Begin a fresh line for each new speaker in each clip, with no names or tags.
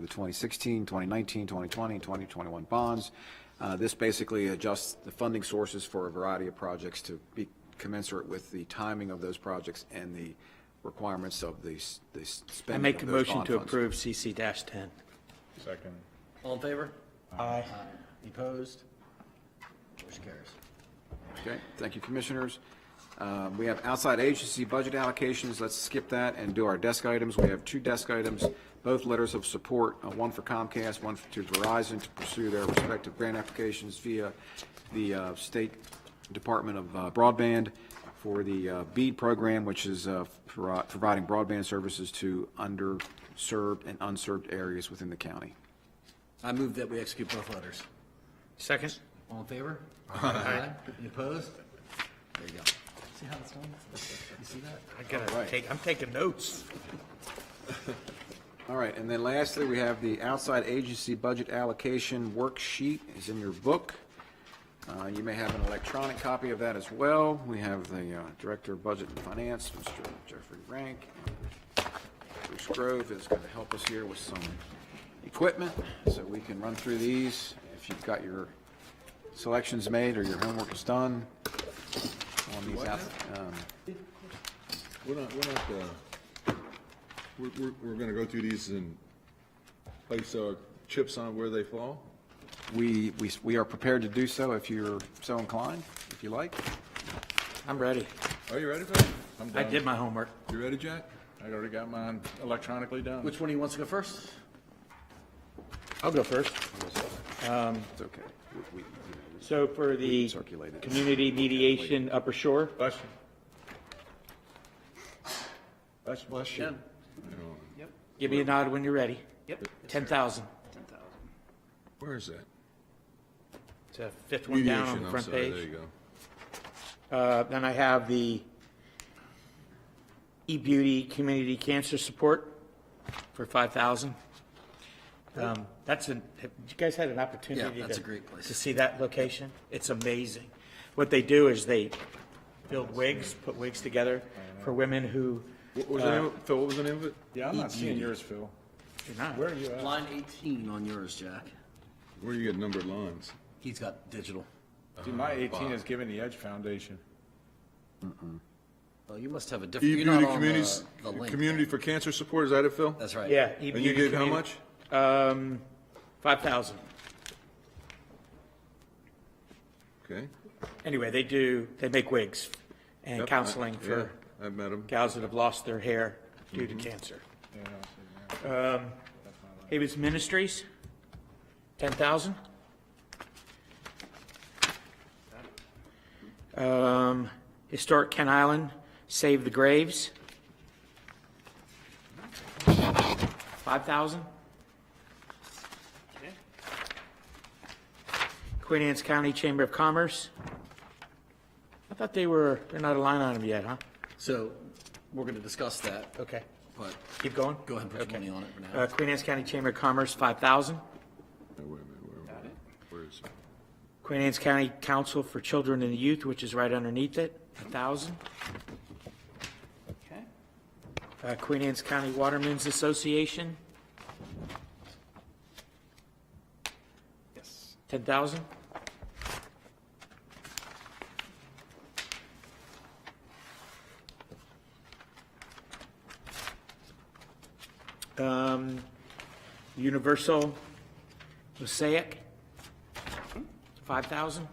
the 2016, 2019, 2020, and 2021 bonds. Uh, This basically adjusts the funding sources for a variety of projects to be commensurate with the timing of those projects and the requirements of the s- the s-
I
spending
make
of
a
those
motion
bond
to
funds.
approve CC ten.
Second.
All in favor?
Aye.
Any Opposed? Motion carries.
Okay, thank you, Commissioners. Um, We have outside agency budget allocations, let's skip that and do our desk items. We have two desk items, both letters of support, uh, one for Comcast, one to Verizon to pursue their respective grant applications via the uh, State Department of uh, Broadband for the uh, BEAD program, which is uh, pro- providing broadband services to underserved and unserved areas within the county.
I move that we execute both letters.
Second?
All in favor? Aye. Any opposed? There you go. See how it's done? You see that?
I gotta take, I'm taking notes.
All right, and then lastly, we have the outside agency budget allocation worksheet is in your book. Uh, You may have an electronic copy of that as well. We have the uh, Director of Budget and Finance, Mr. Jeffrey Rank. and Bruce Grove is going to help us here with some equipment, so we can run through these. If you've got your selections made or your homework is done on these out, um,
We're not, we're not, uh, we're, we're, we're gonna go through these and place our chips on where they fall?
we, we we are prepared to do so if you're so inclined, if you like.
I'm ready.
Are you ready for it? I'm
I
done.
did my homework.
You ready, Jack? I already got mine electronically done.
Which one do you want to go first?
I'll go first.
It's okay. We- we-
So for the
Circulated.
community mediation Upper Shore,
Bless you. Bless, bless you.
give me a nod when you're ready. Yep. Ten thousand.
Where is that?
It's a fifth one down on
Mediation,
the
I'm
front
sorry, There you
page.
go.
Uh, then I have the e-beauty community cancer support for five thousand. Um, that's an, have you guys had an opportunity
that's
to-
a great place.
To see that location? It's amazing. What they do is they build wigs, put wigs together for women who,
What was the name, of- Phil, what was the name of it? E
Yeah, I'm not seeing yours, Phil.
you're not.
Where are you at?
Uh, Line 18 on yours, Jack.
Where you get numbered lines? Ah,
He's got digital.
Dude, my 18 is giving the Edge Foundation.
Oh, you must have a different. you're not
E-Beauty
on the-
E Communities,
the link.
Community for Cancer Support, is that it, Phil?
That's right.
Yeah.
And you
e-beauty
gave how
community-
much?
Um, five thousand.
Okay.
Anyway, they do, they make wigs and
Yep, I-
counseling
yeah,
for
I've met him.
gals that have lost their hair due to cancer. Um, Havens Ministries, ten thousand. Um, Historic Kent Island, Save the Graves. Five thousand. Queen Anne's County Chamber of Commerce. I thought they were, they're not a line item yet, huh?
So we're going to discuss that,
Okay.
but
Keep going?
go ahead and put your
Okay.
money on it for now.
Uh, Queen Anne's County Chamber of Commerce, 5,000.
Now, wait a minute, where- where is it?
Queen Anne's County Council for Children and Youth, which is right underneath it, 1,000.
Okay.
Uh, Queen Anne's County Watermen's Association. Yes. 10,000. Um, Universal Mosaic, 5,000.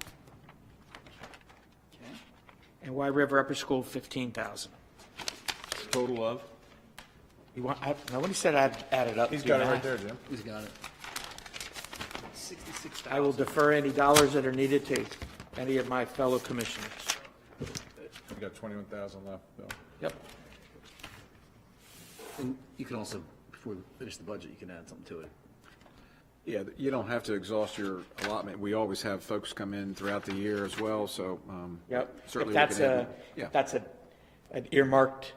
And White River Upper School, 15,000.
Total of?
You want, I, nobody said I'd add it up.
He's
Do
got it right
math.
there, Jim.
He's got it.
I will defer any dollars that are needed to any of my fellow commissioners.
We got 21,000 left, Phil.
Yep.
And you can also, before we finish the budget, you can add something to it.
Yeah, you don't have to exhaust your allotment. We always have folks come in throughout the year as well, so. um,
Yep. If
Certainly. we
that's
can add-
a,
Yeah.
if that's a, an earmarked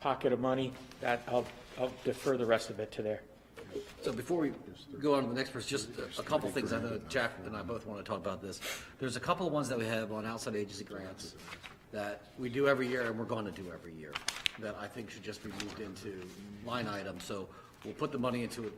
pocket of money, that, I'll, I'll defer the rest of it to there.
So before we go on to the next person, just a- a couple things, I know Jack and I both want to talk about this. There's a couple of ones that we have on outside agency grants that we do every year and we're going to do every year, that I think should just be moved into line items. So We'll put the money into it